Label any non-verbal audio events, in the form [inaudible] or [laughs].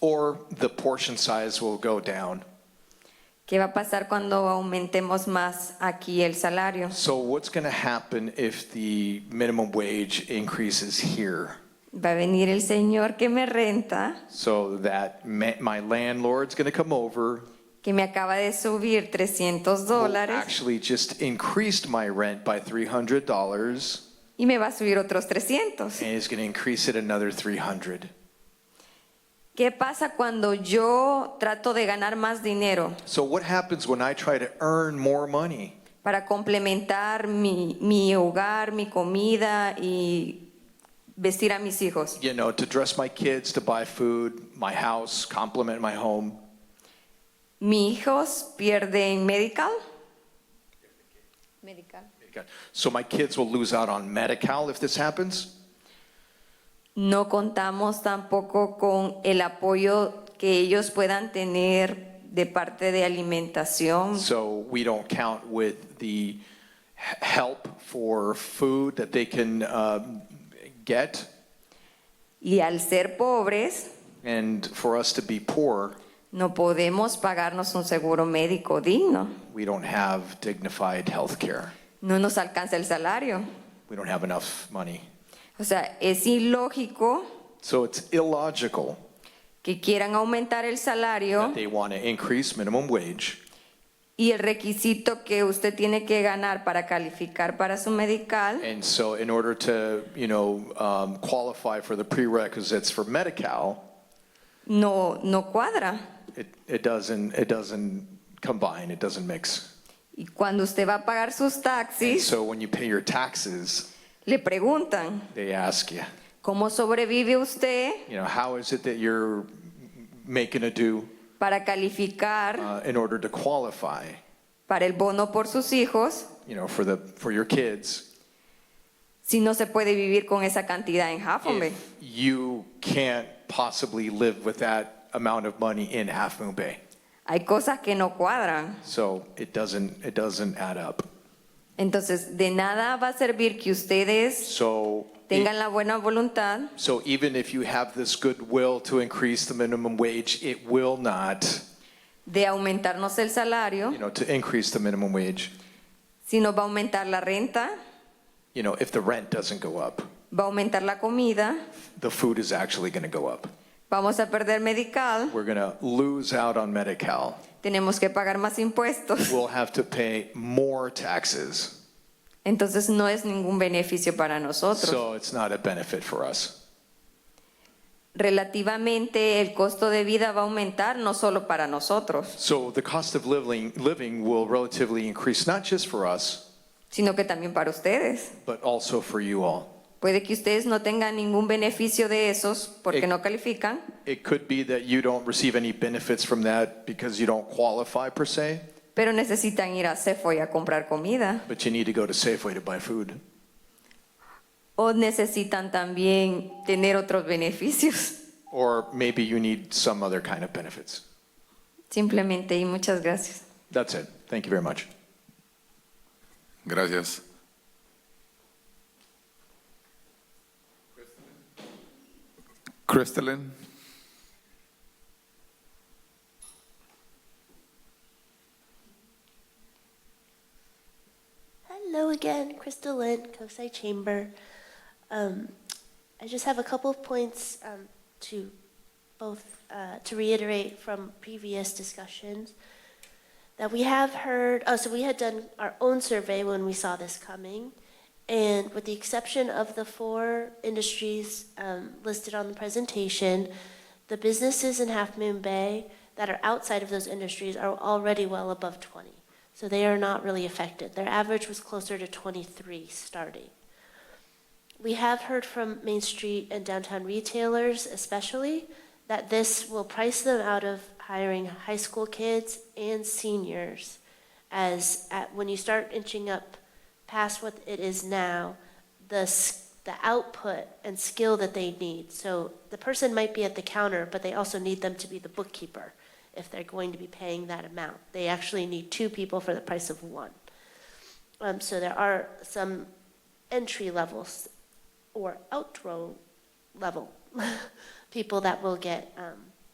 or the portion size will go down. ¿Qué va a pasar cuando aumentemos más aquí el salario? So what's going to happen if the minimum wage increases here? Va a venir el señor que me renta, So that ma- my landlord's going to come over, que me acaba de subir 300 who dólares actually just increased my rent by $300, y me va a subir otros 300. and is going to increase it another 300. ¿Qué pasa cuando yo trato de ganar más dinero So what happens when I try to earn more money para complementar mi, mi hogar, mi comida y vestir a mis hijos? you know, to dress my kids, to buy food, my house, complement my home. ¿Mis hijos pierden medical? So my kids will lose out on Medi-Cal if this happens. No contamos tampoco con el apoyo que ellos puedan tener de parte de alimentación. So we don't count with the h- help for food that they can um, get. Y al ser pobres, And for us to be poor, no podemos pagarnos un seguro médico digno. we don't have dignified health care. No nos alcanza el salario. We don't have enough money. O sea, es ilógico So it's illogical que quieran aumentar el salario that they want to increase minimum wage. y el requisito que usted tiene que ganar para calificar para su medical And so in order to, you know, um, qualify for the prerequisites for Medi-Cal, no, no cuadra. it, it doesn't, it doesn't combine, it doesn't mix. Y cuando usted va a pagar sus And taxis, so when you pay your taxes, le preguntan, they ask you, ¿Cómo sobrevive usted you know, how is it that you're making a do para calificar uh, in order to qualify, para el bono por sus hijos you know, for the, for your kids? si no se puede vivir con esa cantidad en Half Moon Bay? If you can't possibly live with that amount of money in Half Moon Bay. Hay cosas que no cuadran. So it doesn't, it doesn't add up. Entonces, de nada va a servir que ustedes So. it- tengan la buena voluntad So even if you have this goodwill to increase the minimum wage, it will not, de aumentarnos el salario, you know, to increase the minimum wage, si nos va a aumentar la renta, you know, if the rent doesn't go up, va a aumentar la comida, the food is actually going to go up. vamos a perder medical, We're going to lose out on Medi-Cal. tenemos que pagar más impuestos. We'll have to pay more taxes. Entonces, no es ningún beneficio para nosotros. So it's not a benefit for us. relativamente el costo de vida va a aumentar no solo para nosotros, So the cost of living, living will relatively increase, not just for us, sino que también para ustedes. but also for you all. Puede que ustedes no tengan ningún beneficio de esos porque Eh. no califican, It could be that you don't receive any benefits from that because you don't qualify per se. pero necesitan ir a Sefo y a comprar comida. But you need to go to Safeway to buy food. O necesitan también tener otros beneficios. [laughs] Or maybe you need some other kind of benefits. Simplemente y muchas gracias. That's it. Thank you very much. Gracias. Crystalline. Hello again, Crystal Lynn, Kosai Chamber. Um, I just have a couple of points um, to both uh, to reiterate from previous discussions that we have heard. Oh, so we had done our own survey when we saw this coming, and with the exception of the four industries um, listed on the presentation, the businesses in Half Moon Bay that are outside of those industries are already well above 20. So they are not really affected. Their average was closer to 23 starting. We have heard from Main Street and downtown retailers especially that this will price them out of hiring high school kids and seniors as at, when you start inching up past what it is now, the, s- the output and skill that they need. So the person might be at the counter, but they also need them to be the bookkeeper if they're going to be paying that amount. They actually need two people for the price of one. Um, so there are some entry [laughs] levels or outro level people that will get um,